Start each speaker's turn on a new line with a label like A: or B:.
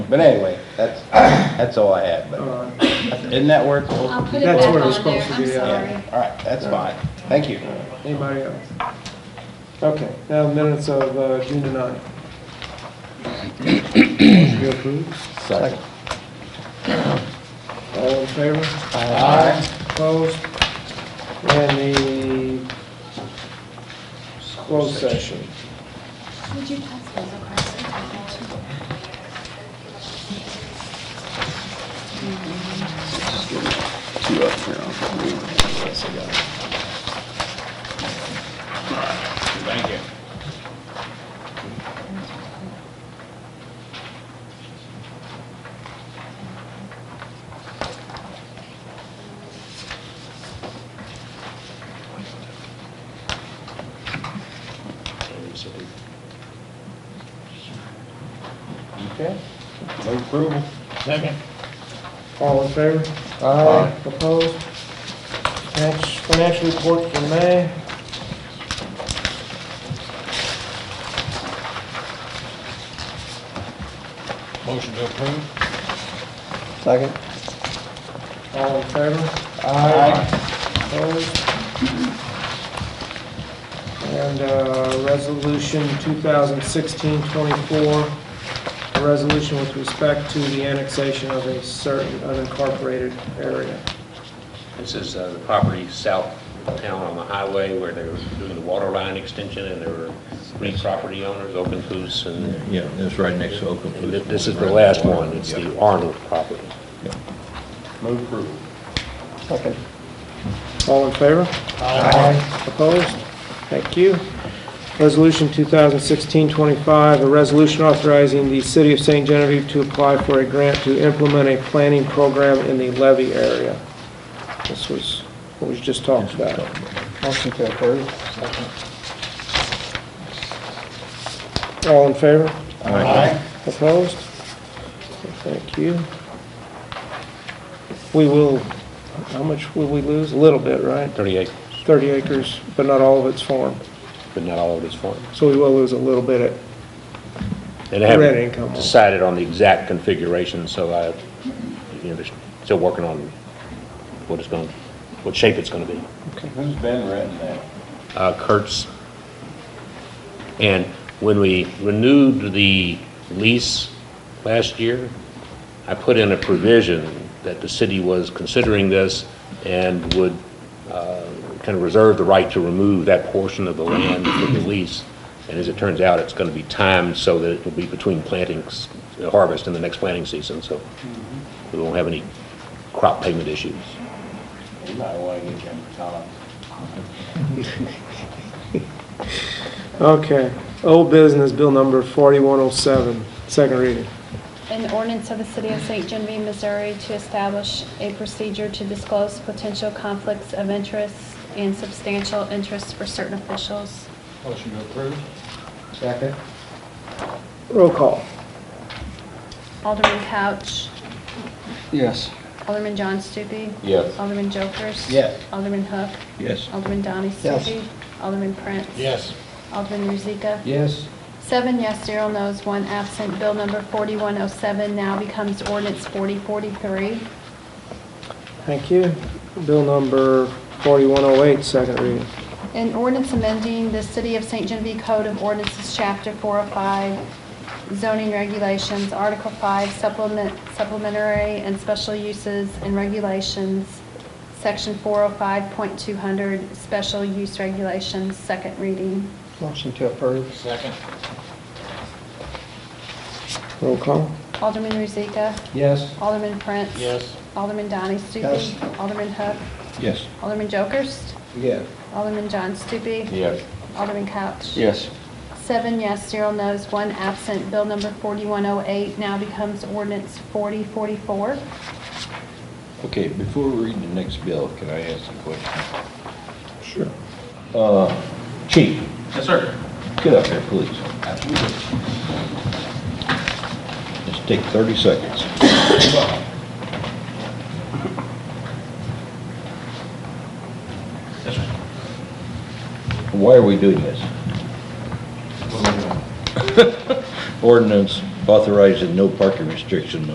A: But anyway, that's, that's all I had, but
B: Uh,
A: isn't that where it's supposed
C: I'll
A: to be?
C: put it
B: That's
C: back
B: where it's
C: on there,
B: supposed to
C: I'm
B: be, yeah.
C: sorry.
A: Yeah, all right, that's fine. Thank you.
B: Anybody else? Okay, now minutes of uh, June the ninth. Motion to approve.
A: Second.
B: All in favor?
A: Aye.
B: Opposed? And the closed session.
C: Would you pass those across? Thank
A: Okay. Move approval. Second.
B: All in favor?
A: Aye.
B: Opposed? Next, financial report for May.
D: Motion to approve?
A: Second.
B: All in favor?
A: Aye.
B: Opposed? And uh, Resolution 2016-24, a resolution with respect to the annexation of a certain unincorporated area.
E: This is uh, the property south of town on the highway where they were doing the water line extension and there were three property owners, Open Coos and
D: Yeah, it's right next to Oakland.
E: and thi- this is the last one, it's the Arnold property.
A: Move approval.
B: Second. All in favor? Aye. Opposed? Thank you. Resolution 2016-25, a resolution authorizing the City of St. Genevieve to apply for a grant to implement a planning program in the levy area. This was what was just talked about.
F: Motion to approve.
B: All in favor?
A: Aye.
B: Opposed? Thank you. We will, how much will we lose? A little bit, right?
E: 38,
B: 30 acres, but not all of it's farm.
E: but not all of it's farm.
B: So we will lose a little bit at
E: And I
B: Red income.
E: haven't decided on the exact configuration, so I, you know, they're still working on what it's going, what shape it's going to be.
A: Who's been renting that?
E: uh, Kurtz. And when we renewed the lease last year, I put in a provision that the city was considering this and would uh, kind of reserve the right to remove that portion of the land from the lease. And as it turns out, it's going to be timed so that it will be between plantings, harvest and the next planting season, so we won't have any crop payment issues.
A: You might want to get him Tom.
B: Okay, old business, bill number 4107, second reading.
C: An ordinance of the City of St. Genevieve, Missouri to establish a procedure to disclose potential conflicts of interest and substantial interests for certain officials.
D: Motion to approve?
F: Second.
B: Roll call.
C: Alderman Couch,
F: Yes.
C: Alderman John Stupi.
A: Yes.
C: Alderman Jokers.
A: Yes.
C: Alderman Hook.
D: Yes.
C: Alderman Donnie
F: Yes.
C: Stupi. Alderman Prince.
D: Yes.
C: Alderman Rozika.
F: Yes.
C: Seven yes, zero no's, one absent. Bill number 4107 now becomes ordinance 4043.
B: Thank you. Bill number 4108, second reading.
C: An ordinance amending the City of St. Genevieve Code of Ordinances, Chapter 405, zoning regulations, Article 5, supplement supplementary and special uses and regulations, Section 405.200, special use regulations, second reading.
F: Motion to approve.
D: Second?
B: Roll call.
C: Alderman Rozika?
F: Yes.
C: Alderman Prince? Alderman Donnie Stupi?
F: Yes.
C: Alderman Hook?
D: Yes.
C: Alderman Jokers?
F: Yes.
C: Alderman John Stupi?
A: Yes.
C: Alderman Couch?
F: Yes.
C: Seven yes, zero no's, one absent. Bill number 4108 now becomes ordinance 4044.
D: Okay, before we read the next bill, can I ask a question? Uh,
B: Sure.
D: Chief,
G: Yes, sir.
D: get up there, please. Just take 30 seconds.
G: Yes, sir.
D: Why are we doing this? Ordinance authorizing no parking restriction